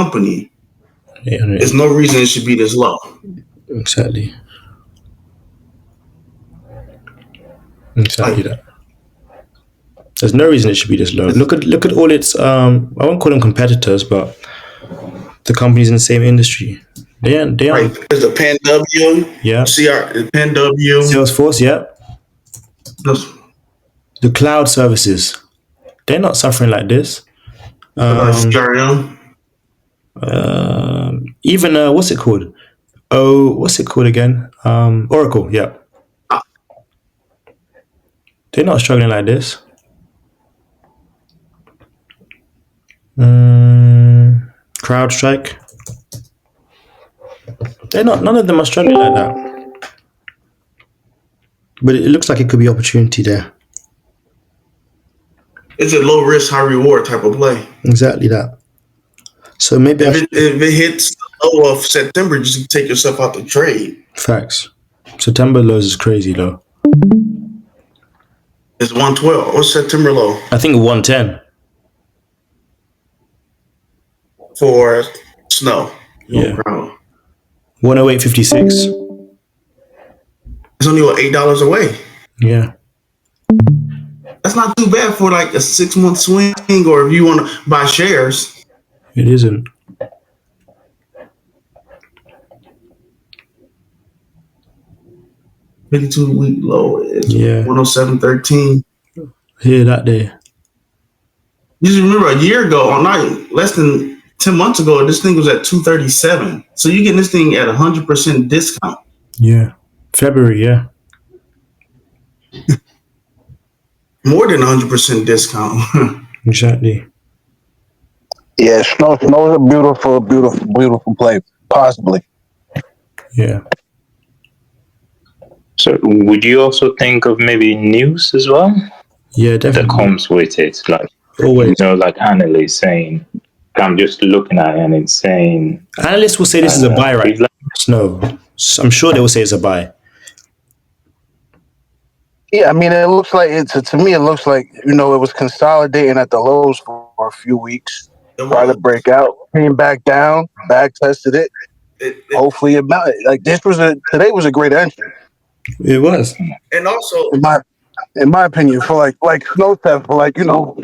company, Yeah, yeah, there's no reason it should be this low. exactly. Exactly that. There's no reason it should be this low. Look at look at all its um I won't call them competitors, but the companies in the same industry. They are they are Right? There's the Pan W, yeah. CR, the Pan W. Salesforce, yeah. The cloud services. They're not suffering like this. uh, CRM. Um, even uh, what's it called? Oh, what's it called again? Um, Oracle. Yeah, they're not struggling like this. Mm, CrowdStrike. They're not. None of them are struggling like that. But it looks like it could be opportunity there. It's a low risk, high reward type of play. Exactly that. So maybe I If should, it, if it hits the low of September, just take yourself out the trade. facts. September lows is crazy low. It's 112. What's September low I think one ten. for snow? No Yeah. problem. 108.56. It's only what, $8 away. Yeah. That's not too bad for like a six month swing, or if you want to buy shares. It isn't. Fifty-two week low is Yeah. one hundred seven thirteen. Here that day. You just remember a year ago, or not less than ten months ago, this thing was at two thirty seven. So you getting this thing at a hundred percent discount. Yeah. February, yeah. more than 100% discount. Exactly. Yeah, snow snow is a beautiful, beautiful, beautiful play. Possibly. Yeah. So would you also think of maybe news as well Yeah, that definitely. comes with it? Like you Always. know, like Annalise saying, I'm just looking at it and it's saying Analysts will say this is a buy, right? No. So I'm sure they will say it's a buy. Yeah, I mean, it looks like it's to me. It looks like you know it was consolidating at the lows for a few weeks, tried to break out, came back down, back tested it. It- it- Hopefully, about it. like this was a today was a great entry It was. and also, in my in my opinion for like like snow theft for like you know.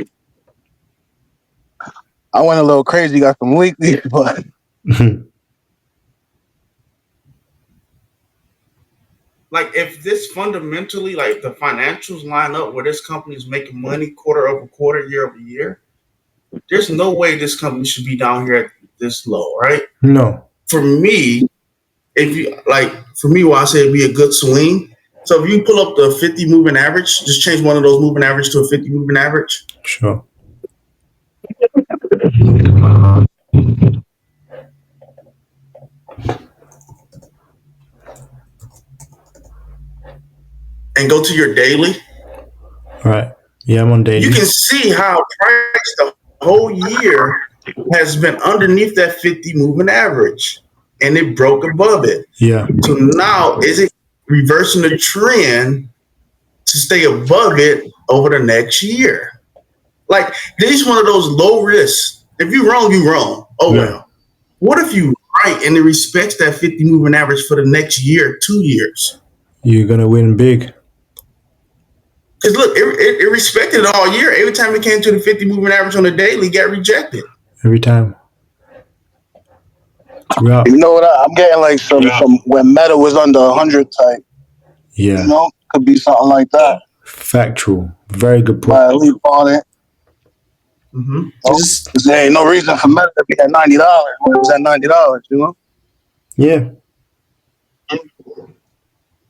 I went a little crazy, got some weekly, but Hmm. like, if this fundamentally, like, the financials line up where this company is making money quarter over quarter, year over year, there's no way this company should be down here at this low, right? no. For me, if you like, for me, why I say it'd be a good swing. So if you pull up the 50 moving average, just change one of those moving average to a 50 moving average. Sure. and go to your daily, All right. Yeah, I'm on daily. you can see how price the whole year has been underneath that 50 moving average and it broke above it. yeah. So now is it reversing the trend to stay above it over the next year? Like this is one of those low risks. If you're wrong, you're wrong. Oh Yeah. well. What if you right and it respects that 50 moving average for the next year, two years? You're going to win big. Because look, it, it, it respected it all year. Every time it came to the 50 moving average on the daily, it got rejected. Every time. Throughout. you know what? I, I'm getting like some, some when Meta was under hundred type. You Yeah. know, could be something like that. Factual. Very good point. Buy a leap on it. Mm-hmm. This is- There ain't no reason for Meta to be at ninety dollars when it was at ninety dollars, you know? Yeah.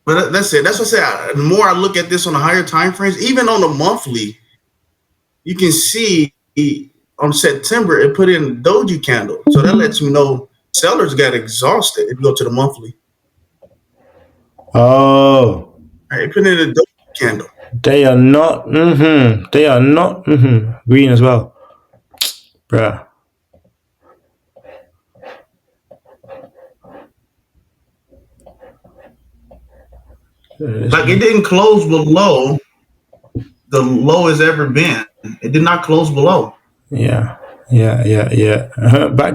But that- that's it. That's what I said. I- The more I look at this on the higher time frames, even on the monthly, you can see on September it put in doji candle. So that lets you know sellers got exhausted if you go to the monthly. Oh. All right, it put in a doji candle. They are not. Mm-hmm. They are not. Mm-hmm. Green as well, bruh. Like it didn't close below the lowest ever been. It did not close below. Yeah, yeah, yeah, yeah. Uh-huh. Back